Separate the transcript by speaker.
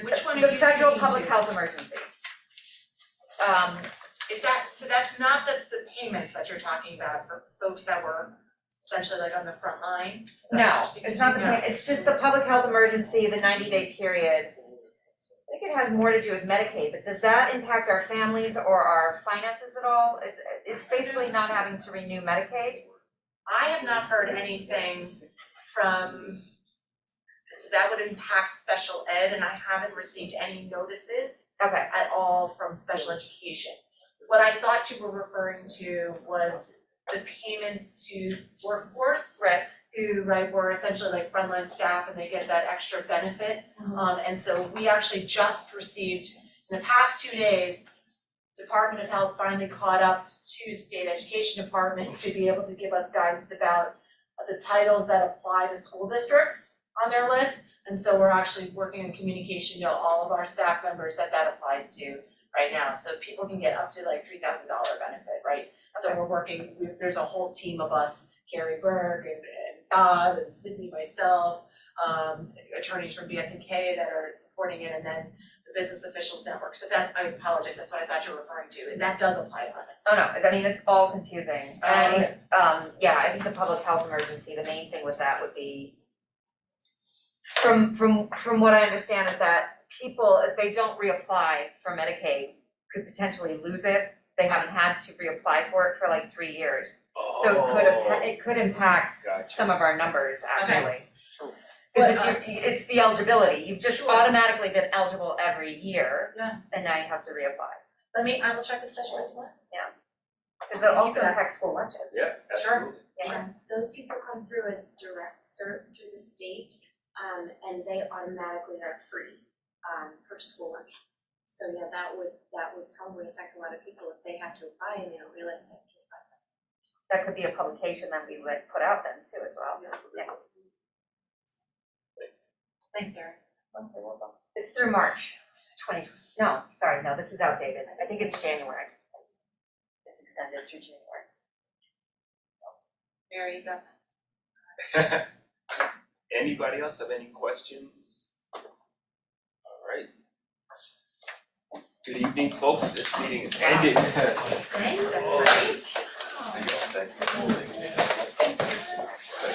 Speaker 1: one
Speaker 2: the
Speaker 1: you
Speaker 2: federal
Speaker 1: need
Speaker 2: public
Speaker 1: to.
Speaker 2: health emergency. Um,
Speaker 1: Is that, so that's not the, the payments that you're talking about for folks that were essentially like on the front line? Is that what
Speaker 2: no,
Speaker 1: you're speaking
Speaker 2: it's
Speaker 1: to?
Speaker 2: not the,
Speaker 1: No.
Speaker 2: pa- it's just the public health emergency, the ninety day period. I think it has more to do with Medicaid, but does that impact our families or our finances at all? It's, it's basically not having to renew Medicaid.
Speaker 1: I have not heard anything from, so that would impact special ed, and I haven't received any notices
Speaker 2: Okay,
Speaker 1: at all from special education. What I thought you were referring to was the payments to workforce
Speaker 2: right.
Speaker 1: who, right, were essentially like frontline staff and they get that extra benefit.
Speaker 2: Mhm.
Speaker 1: Um, and so we actually just received, in the past two days, Department of Health finally caught up to State Education Department to be able to give us guidance about the titles that apply to school districts on their list. And so we're actually working on communication to all of our staff members that that applies to right now. So people can get up to like three thousand dollar benefit, right? So we're working, we- there's a whole team of us, Gary Berg and and Bob and Sydney, myself, um, attorneys from BSNK that are supporting it, and then the Business Officials Network. So that's, I apologize, that's what I thought you were referring to, and that does apply to us.
Speaker 2: Oh, no, I mean, it's all confusing, and I think, um, yeah, I think the public health emergency, the main thing with that would be from, from, from what I understand is that people, if they don't reapply for Medicaid, could potentially lose it. They haven't had to reapply for it for like three years, so it could,
Speaker 1: Oh.
Speaker 2: impa- it could
Speaker 3: Oh,
Speaker 2: impact some of our numbers, actually.
Speaker 1: Cool.
Speaker 2: Because
Speaker 1: But,
Speaker 2: if you, it's the eligibility, you've just
Speaker 1: uh, Sure.
Speaker 2: automatically been eligible every year.
Speaker 1: Yeah.
Speaker 2: And now you have to reapply,
Speaker 1: Let me, I will check the special ed tomorrow.
Speaker 2: because that also
Speaker 1: Yeah.
Speaker 2: impacts school lunches.
Speaker 3: Yeah, absolutely.
Speaker 2: Yeah.
Speaker 4: Those people come through as direct cert through the state, um, and they automatically are free, um, for school lunch. So yeah, that would, that would probably affect a lot of people if they have to apply and they don't realize they have to apply.
Speaker 2: that could be a publication that we would put out then too as well.
Speaker 1: Thanks, Erin.
Speaker 2: It's through March twenty, no, sorry, no, this is outdated, I think it's January. It's extended through January.
Speaker 1: Mary, you got
Speaker 3: Anybody else have any questions? All right. Good evening, folks. This meeting is ended.
Speaker 1: Thanks,
Speaker 3: everybody. Thank you.